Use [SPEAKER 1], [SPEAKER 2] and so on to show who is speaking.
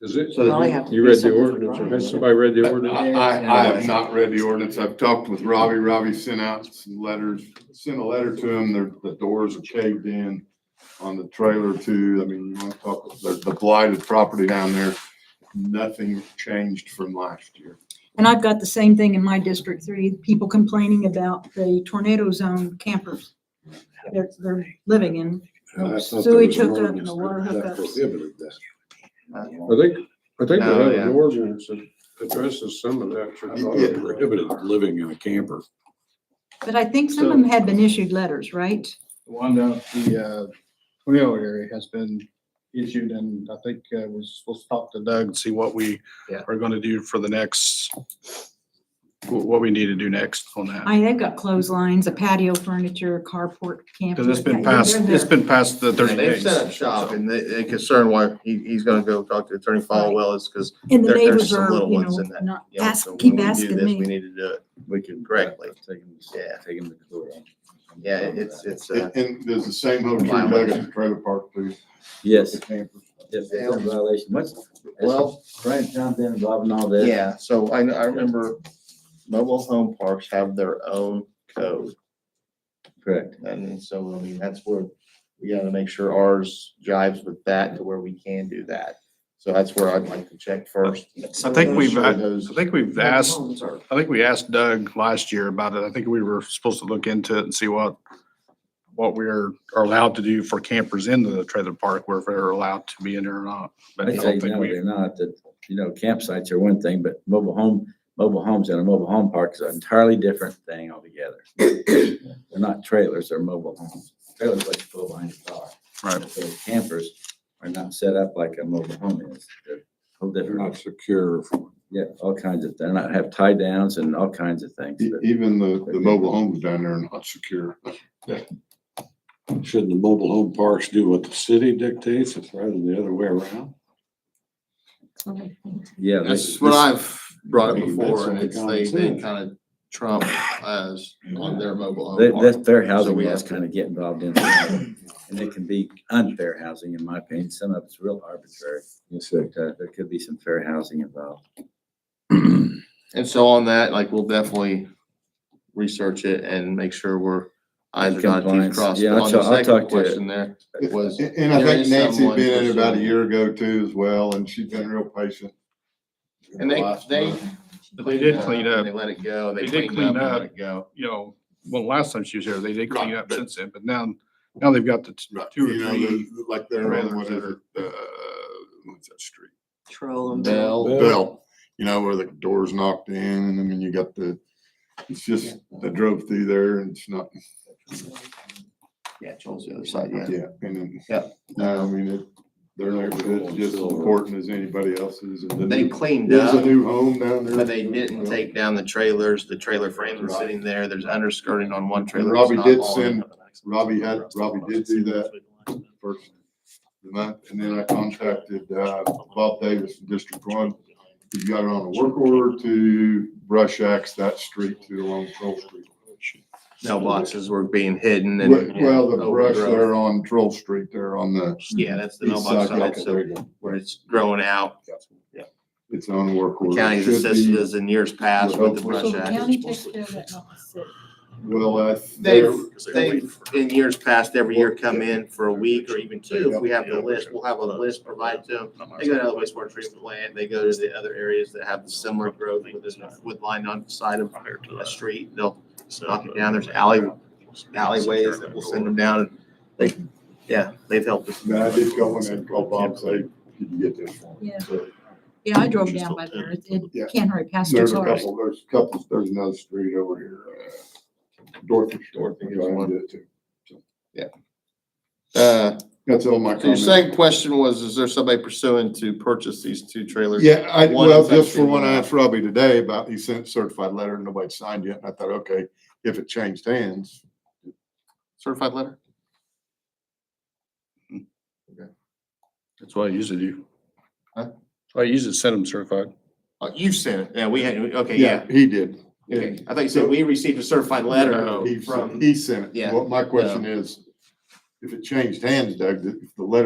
[SPEAKER 1] Is it?
[SPEAKER 2] So
[SPEAKER 3] Well, I
[SPEAKER 2] that
[SPEAKER 3] have to
[SPEAKER 1] You
[SPEAKER 3] do
[SPEAKER 1] read the
[SPEAKER 3] something for
[SPEAKER 1] ordinance,
[SPEAKER 3] Brian.
[SPEAKER 1] Has somebody read the ordinance?
[SPEAKER 4] I, I I have not read the ordinance. I've talked with Robbie. Robbie sent out some letters, sent a letter to him. The, the doors are caved in on the trailer too. I mean, you want to talk, the, the blighted property down there, nothing changed from last year.
[SPEAKER 5] And I've got the same thing in my District Three, people complaining about the tornado zone campers. They're, they're living in,
[SPEAKER 6] And I thought there
[SPEAKER 5] Sewage
[SPEAKER 6] was an
[SPEAKER 5] hookup
[SPEAKER 6] ordinance
[SPEAKER 5] and the water
[SPEAKER 6] that- that
[SPEAKER 5] hookups.
[SPEAKER 6] Prohibited that.
[SPEAKER 1] I think, I think we
[SPEAKER 4] No,
[SPEAKER 1] have
[SPEAKER 4] yeah.
[SPEAKER 1] an ordinance that addresses some of that.
[SPEAKER 6] I thought it
[SPEAKER 1] should-
[SPEAKER 6] prohibited living in a camper.
[SPEAKER 5] but I think some of them had been issued letters, right?
[SPEAKER 7] The one down at the uh, Twinio area has been issued and I think uh, we're supposed to talk to Doug and see what we
[SPEAKER 3] Yeah.
[SPEAKER 7] are gonna do for the next, wh- what we need to do next on that.
[SPEAKER 5] I, they've got clotheslines, a patio furniture, carport camper.
[SPEAKER 7] Cause it's
[SPEAKER 5] Yeah,
[SPEAKER 7] been
[SPEAKER 5] they're-
[SPEAKER 7] past,
[SPEAKER 5] they're
[SPEAKER 7] it's
[SPEAKER 5] there.
[SPEAKER 7] been past the thirty
[SPEAKER 3] They've
[SPEAKER 7] days.
[SPEAKER 3] set up shop and they, they concern why he, he's gonna go talk to Attorney Falwell is because,
[SPEAKER 5] And the
[SPEAKER 3] there- there's
[SPEAKER 5] neighbors
[SPEAKER 3] some
[SPEAKER 5] are,
[SPEAKER 3] little
[SPEAKER 5] you
[SPEAKER 3] ones
[SPEAKER 5] know,
[SPEAKER 3] in that,
[SPEAKER 5] not,
[SPEAKER 3] you know,
[SPEAKER 5] ask,
[SPEAKER 3] so when
[SPEAKER 5] keep
[SPEAKER 3] we do
[SPEAKER 5] asking
[SPEAKER 3] this, we
[SPEAKER 5] me.
[SPEAKER 3] need to do it, we can correctly. Yeah.
[SPEAKER 8] Take him to court.
[SPEAKER 3] Yeah, it- it's, it's, uh,
[SPEAKER 4] And- And there's the same hotel Doug at the trailer park too.
[SPEAKER 8] Yes,
[SPEAKER 4] The campers.
[SPEAKER 8] yes, it's a violation. What's,
[SPEAKER 3] well,
[SPEAKER 8] Frank jumped in involved in all this.
[SPEAKER 3] yeah, so I, I remember mobile home parks have their own code.
[SPEAKER 8] Correct.
[SPEAKER 3] And so, I mean, that's where we gotta make sure ours jives with that to where we can do that. So that's where I'd like to check first.
[SPEAKER 7] I think we've, uh,
[SPEAKER 3] Sure
[SPEAKER 7] I
[SPEAKER 3] those-
[SPEAKER 7] think we've asked,
[SPEAKER 3] Homes are-
[SPEAKER 7] I think we asked Doug last year about it. I think we were supposed to look into it and see what, what we're are allowed to do for campers in the trailer park, where if they're allowed to be in there or not. But I
[SPEAKER 8] I say
[SPEAKER 7] don't think
[SPEAKER 8] no,
[SPEAKER 7] we,
[SPEAKER 8] they're not, that, you know, campsites are one thing, but mobile home, mobile homes and a mobile home park is an entirely different thing altogether. They're not trailers, they're mobile homes. Trailers let you pull behind your car.
[SPEAKER 7] Right.
[SPEAKER 8] So campers are not set up like a mobile home is. They're whole
[SPEAKER 6] They're
[SPEAKER 8] different,
[SPEAKER 6] not secure.
[SPEAKER 8] yeah, all kinds of, they're not, have tie downs and all kinds of things.
[SPEAKER 4] E-
[SPEAKER 8] but-
[SPEAKER 4] Even the, the mobile homes down there are not secure.
[SPEAKER 6] Shouldn't the mobile home parks do what the city dictates? It's rather than the other way around.
[SPEAKER 8] Yeah. they-
[SPEAKER 9] That's what I've brought
[SPEAKER 6] I
[SPEAKER 9] up
[SPEAKER 6] mean, that's
[SPEAKER 9] before, and
[SPEAKER 6] only
[SPEAKER 9] it's they,
[SPEAKER 6] common
[SPEAKER 9] they
[SPEAKER 6] sense.
[SPEAKER 9] kind of trump us on their mobile
[SPEAKER 8] Their,
[SPEAKER 9] home
[SPEAKER 8] their,
[SPEAKER 9] park.
[SPEAKER 8] their
[SPEAKER 9] So
[SPEAKER 8] housing
[SPEAKER 9] we
[SPEAKER 8] laws
[SPEAKER 9] have
[SPEAKER 8] kind of get involved in that. And it can be unfair housing, in my opinion. Some of it's real arbitrary.
[SPEAKER 6] Yes,
[SPEAKER 8] But, uh, there could be some fair housing involved.
[SPEAKER 9] And so on that, like, we'll definitely research it and make sure we're eyes are dotted,
[SPEAKER 8] Compliance.
[SPEAKER 9] teeth crossed.
[SPEAKER 8] Yeah,
[SPEAKER 9] But
[SPEAKER 8] I'll
[SPEAKER 9] On the
[SPEAKER 8] ta- I'll talk
[SPEAKER 9] second
[SPEAKER 8] to-
[SPEAKER 9] question there was,
[SPEAKER 4] And and I
[SPEAKER 9] There
[SPEAKER 4] think
[SPEAKER 9] is
[SPEAKER 4] Nancy
[SPEAKER 9] someone
[SPEAKER 4] had been in
[SPEAKER 9] for
[SPEAKER 4] about a
[SPEAKER 9] sure.
[SPEAKER 4] year ago too as well, and she's been real patient.
[SPEAKER 9] and they,
[SPEAKER 4] Last
[SPEAKER 9] they.
[SPEAKER 4] month.
[SPEAKER 7] They did clean
[SPEAKER 9] and
[SPEAKER 7] up.
[SPEAKER 9] They let it go, they
[SPEAKER 7] They
[SPEAKER 9] cleaned
[SPEAKER 7] did
[SPEAKER 9] up
[SPEAKER 7] clean
[SPEAKER 9] and let
[SPEAKER 7] up.
[SPEAKER 9] it go.
[SPEAKER 7] you know, well, last time she was here, they did clean
[SPEAKER 4] Right,
[SPEAKER 7] up
[SPEAKER 4] but-
[SPEAKER 7] since then, but now, now they've got the t-
[SPEAKER 4] Right,
[SPEAKER 7] two
[SPEAKER 4] you
[SPEAKER 7] or
[SPEAKER 4] know,
[SPEAKER 7] three.
[SPEAKER 4] the- Like they're on, what is
[SPEAKER 7] trailers
[SPEAKER 4] it, uh, what's that street?
[SPEAKER 3] Troll them.
[SPEAKER 9] Bell,
[SPEAKER 4] Bell, you know, where the door's knocked in, and I mean, you got the, it's just, I drove through there and it's not,
[SPEAKER 9] yeah, Joel's the other side, yeah.
[SPEAKER 4] yeah, and then.
[SPEAKER 9] Yeah.
[SPEAKER 4] No, I mean, it, their neighborhood's just as important as anybody else's. and the
[SPEAKER 3] They
[SPEAKER 4] new-
[SPEAKER 3] cleaned
[SPEAKER 4] There's a
[SPEAKER 3] up,
[SPEAKER 4] new home down there.
[SPEAKER 3] but they didn't take down the trailers. The trailer frames are
[SPEAKER 4] Right.
[SPEAKER 3] sitting there. There's underskirting on one trailer.
[SPEAKER 4] And
[SPEAKER 3] that's
[SPEAKER 4] Robbie
[SPEAKER 3] not
[SPEAKER 4] did
[SPEAKER 3] hauling.
[SPEAKER 4] send- Robbie had, Robbie did do that first month, and then I contacted, uh, Bob Davis from District One. He's got it on a work order to brush axe that street to along Troll Street.
[SPEAKER 3] Mailboxes were being hidden and.
[SPEAKER 4] Well, the brush
[SPEAKER 3] overgrown.
[SPEAKER 4] there on Troll Street there on the.
[SPEAKER 3] Yeah, that's the
[SPEAKER 4] east
[SPEAKER 3] mailbox
[SPEAKER 4] side,
[SPEAKER 3] side,
[SPEAKER 4] okay,
[SPEAKER 3] so
[SPEAKER 4] there you go.
[SPEAKER 3] where it's growing out.
[SPEAKER 4] It's on work
[SPEAKER 3] The
[SPEAKER 4] order.
[SPEAKER 3] county's
[SPEAKER 4] Should be-
[SPEAKER 3] assisted us in years past with the
[SPEAKER 5] So
[SPEAKER 3] brush
[SPEAKER 5] the
[SPEAKER 3] act.
[SPEAKER 5] county takes care of that, not the city.
[SPEAKER 4] Well, I.
[SPEAKER 3] They've, they've, in years past, every year come in for a week or even two. If we have the list, we'll have a list provided to them. They go to the wastewater treatment plant, they go to the other areas that have similar growth with this, with line on the side of a street, they'll knock it down, there's alley, alleyways that we'll send them down, and they, yeah, they've helped us.
[SPEAKER 4] Man, I did go in and call Bob, and say, did you get this one?
[SPEAKER 5] Yeah.
[SPEAKER 4] So,
[SPEAKER 5] Yeah, I drove down by there. It,
[SPEAKER 4] Yeah.
[SPEAKER 5] it can't hurry past your
[SPEAKER 4] There's a
[SPEAKER 5] cars.
[SPEAKER 4] couple, there's a couple, there's another street over here, uh, Dorothy.
[SPEAKER 9] Dorothy is
[SPEAKER 4] I
[SPEAKER 9] one.
[SPEAKER 4] did it too.
[SPEAKER 9] Uh,
[SPEAKER 4] That's all my
[SPEAKER 9] so your
[SPEAKER 4] comments.
[SPEAKER 9] second question was, is there somebody pursuing to purchase these two trailers?
[SPEAKER 4] Yeah, I,
[SPEAKER 9] One
[SPEAKER 4] well,
[SPEAKER 9] is
[SPEAKER 4] just for
[SPEAKER 9] actually-
[SPEAKER 4] one, I asked Robbie today about, he sent certified letter, nobody signed yet, and I thought, okay, if it changed hands,
[SPEAKER 9] Certified letter?
[SPEAKER 7] That's what I usually do.
[SPEAKER 9] Huh?
[SPEAKER 7] So I usually send them certified.
[SPEAKER 9] Oh, you sent it, yeah, we had, okay, yeah.
[SPEAKER 4] yeah, he did.
[SPEAKER 9] Okay, I thought you said we received a certified letter
[SPEAKER 4] He,
[SPEAKER 9] from.
[SPEAKER 4] he sent it.
[SPEAKER 9] Yeah.
[SPEAKER 4] Well, my question is, if it changed hands, Doug, if the letter